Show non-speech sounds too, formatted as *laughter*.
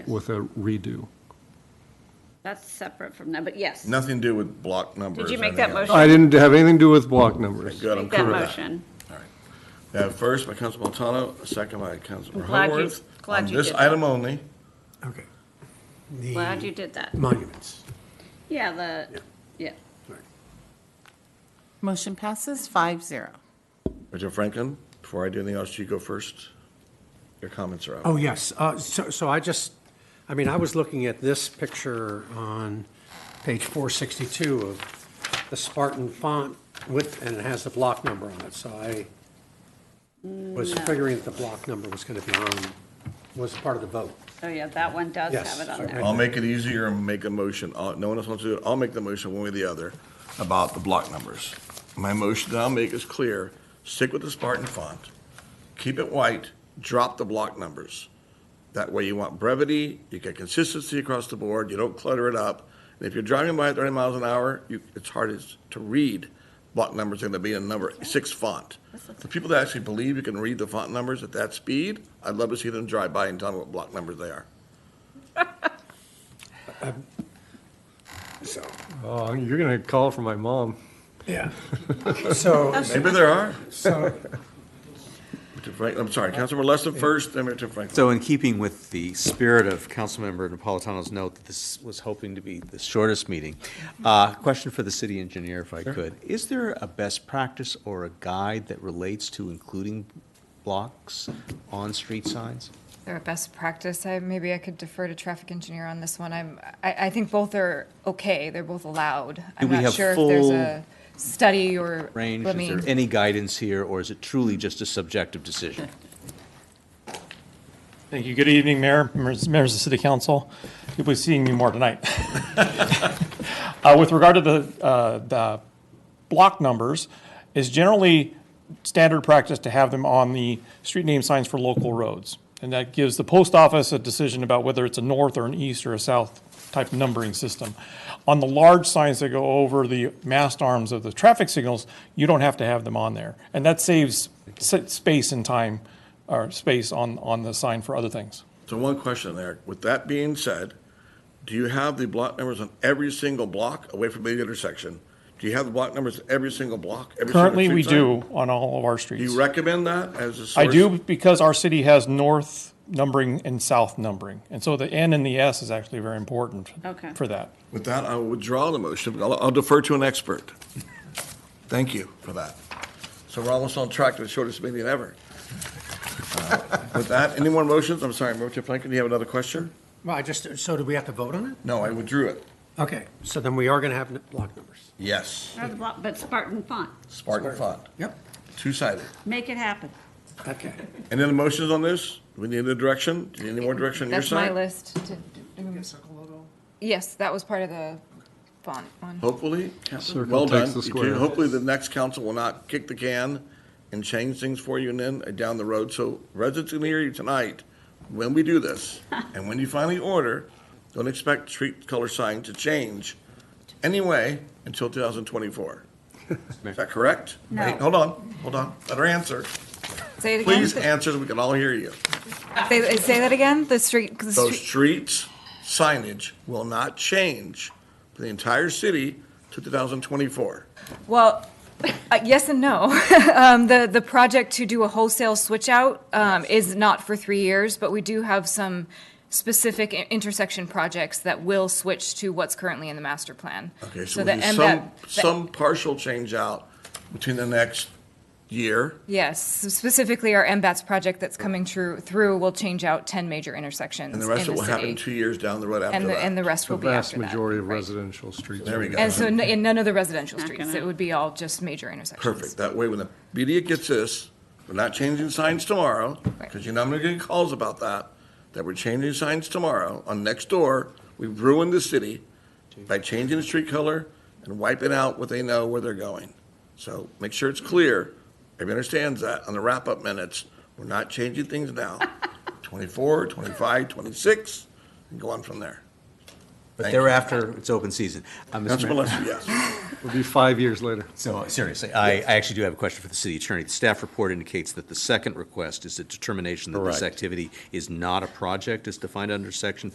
with a redo. That's separate from that, but yes. Nothing to do with block numbers. Did you or make that anything else. motion? I didn't have anything to do with block numbers. Good, I'm Make that cool with that. motion. All right. We have first by Councilman Montano, second by Councilman I'm glad you- Horwath. glad you On this did that. item only, Okay. Glad you The did that. monuments. Yeah, the, yeah. Right. Motion passes five zero. Mr. Franklin, before I do anything else, you go first. Your comments are out. Oh, yes. Uh, So, so I just, I mean, I was looking at this picture on page 462 of the Spartan font with, and it has the block number on it. So I was figuring that the block number was going to be on, was part of the vote. Oh, yeah, that one does Yes, have it on sorry. there. I'll make it easier and make a motion. Uh, No one else wants to do it. I'll make the motion one way or the other about the block numbers. My motion that I'll make is clear. Stick with the Spartan font. Keep it white. Drop the block numbers. That way you want brevity, you get consistency across the board, you don't clutter it up. And if you're driving by at 30 miles an hour, you, it's hard as- to read block numbers going to be in number six font. The people that actually believe you can read the font numbers at that speed, I'd love to see them drive by and tell me what block numbers they are. So, Oh, you're gonna call for my mom. yeah. *laughs* So, Maybe there are. so Mr. Frank, I'm sorry, Councilmember Lesson first, then Mr. Franklin. So in keeping with the spirit of Councilmember Napolitano's note that this was hoping to be the shortest meeting, uh, question for the city engineer if I could. Is there a best practice or a guide that relates to including blocks on street signs? Or best practice, I, maybe I could defer to traffic engineer on this one. I'm, I, I think both are okay, they're both allowed. Do I'm we not have sure if there's full a study or, Range, let is me, there any guidance here, or is it truly just a subjective decision? Thank you. Good evening, Mayor, members members of the City Council. You'll be seeing me more tonight. Uh, With regard to the, uh, the block numbers, is generally standard practice to have them on the street name signs for local roads. And that gives the post office a decision about whether it's a north or an east or a south type numbering system. On the large signs that go over the mast arms of the traffic signals, you don't have to have them on there. And that saves s- space and time, or space on, on the sign for other things. So one question there. With that being said, do you have the block numbers on every single block away from the intersection? Do you have the block numbers on every single block? every single Currently, we street sign? do on all of our Do streets. you recommend that as a source? I do because our city has north numbering and south numbering. And so the N and the S is actually very important Okay. for that. With that, I will withdraw the motion. I'll I'll defer to an expert. Thank you for that. So we're almost on track to the shortest meeting ever. Uh, With that, any more motions? I'm sorry, Mr. Franklin, do you have another question? well, I just, so do we have to vote on it? No, I withdrew it. Okay, so then we are going to have n- block numbers. Yes, Or the block- But Spartan font, Spartan font, Yep. two-sided. make it happen. Okay. Any other motions on this? We need a direction? Do you need any more direction on your that's my side? list. to- Yes, that was part of the font one. Hopefully, Captain. Circle well takes done. the You two- square. Hopefully, the next council will not kick the can and change things for you and then uh, down the road. So residents can hear you tonight when we do *laughs* this. And when you finally order, don't expect street color sign to change anyway *laughs* until 2024. Is that correct? No. Hey, Hold on, hold on. Let her answer. Say it again, Please answer so we can all hear you. say, say that again, the street, 'cause the So street, streets signage will not change for the entire city to 2024. well, *laughs* uh, yes and no. *laughs* Um, the, the project to do a wholesale switch out, um, is not for three years, but we do have some specific i- intersection projects that will switch to what's currently in the master plan. Okay, so the we'll do MDOT some, the- some partial change out between the next year. Yes, specifically our MBATS project that's coming through, through will change out 10 major intersections in And the the rest city. of it will happen two years down the road after And the, and the that. rest The will be vast after that. majority of right. residential streets. There we go. And so, n- in none of the residential Not streets, gonna- it would be all just major intersections. Perfect. That way, when the media gets this, we're not changing signs tomorrow, Right. because you know I'm gonna get calls about that, that we're changing signs tomorrow on next door. We've ruined the city by changing the street color and wiping out what they know where they're going. So make sure it's clear. Everybody understands that on the wrap-up minutes. We're not changing things now. 24, 25, 26, and go on from there. But Thank you. thereafter, it's open season. Uh, Mr. Councilman Mayor- Lesser, yes. It'll be five years later. So seriously, I, I actually do have a question for the city attorney. The staff report indicates that the second request is a determination that this Correct. activity is not a project as defined under section